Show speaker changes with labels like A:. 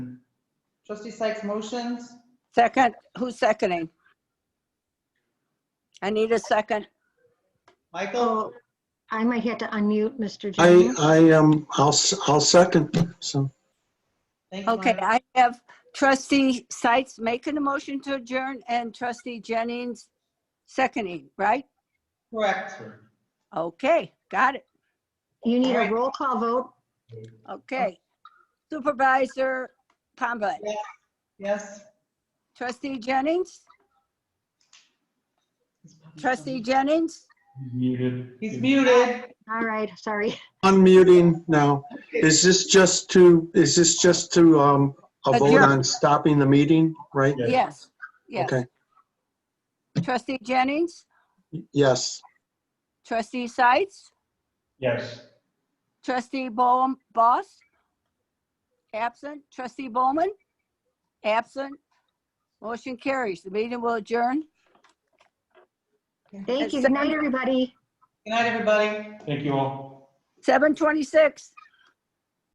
A: Trustee Sykes motions.
B: Second, who's seconding? I need a second.
A: Michael,
C: Oh, I might have to unmute Mr.
D: I,
C: Jones.
D: I, um, I'll, s- I'll second, so.
A: thank you.
B: Okay,
A: Myra.
B: I have trustee Sites making a motion to adjourn and trustee Jennings seconding, right?
A: Correct.
B: Okay, got it.
C: You need a
A: Alright.
C: roll call vote.
B: Okay. Supervisor Pombat,
A: Yes.
B: trustee Jennings, trustee Jennings,
E: Muted.
A: He's muted.
C: All right, sorry.
D: Unmuting now. Is this just to, is this just to, um, a vote
B: Adjourn.
D: on stopping the meeting, right?
E: Yeah.
B: yes, yes.
D: Okay,
B: Trustee Jennings,
D: yes.
B: trustee Sites,
E: Yes.
B: Trustee Bowen, Boss? Absent. Trustee Bowman? Absent. Motion carries. The meeting will adjourn.
C: Thank you.
B: It's
C: Good night, everybody.
A: Good night, everybody.
E: Thank you all.
B: 7:26.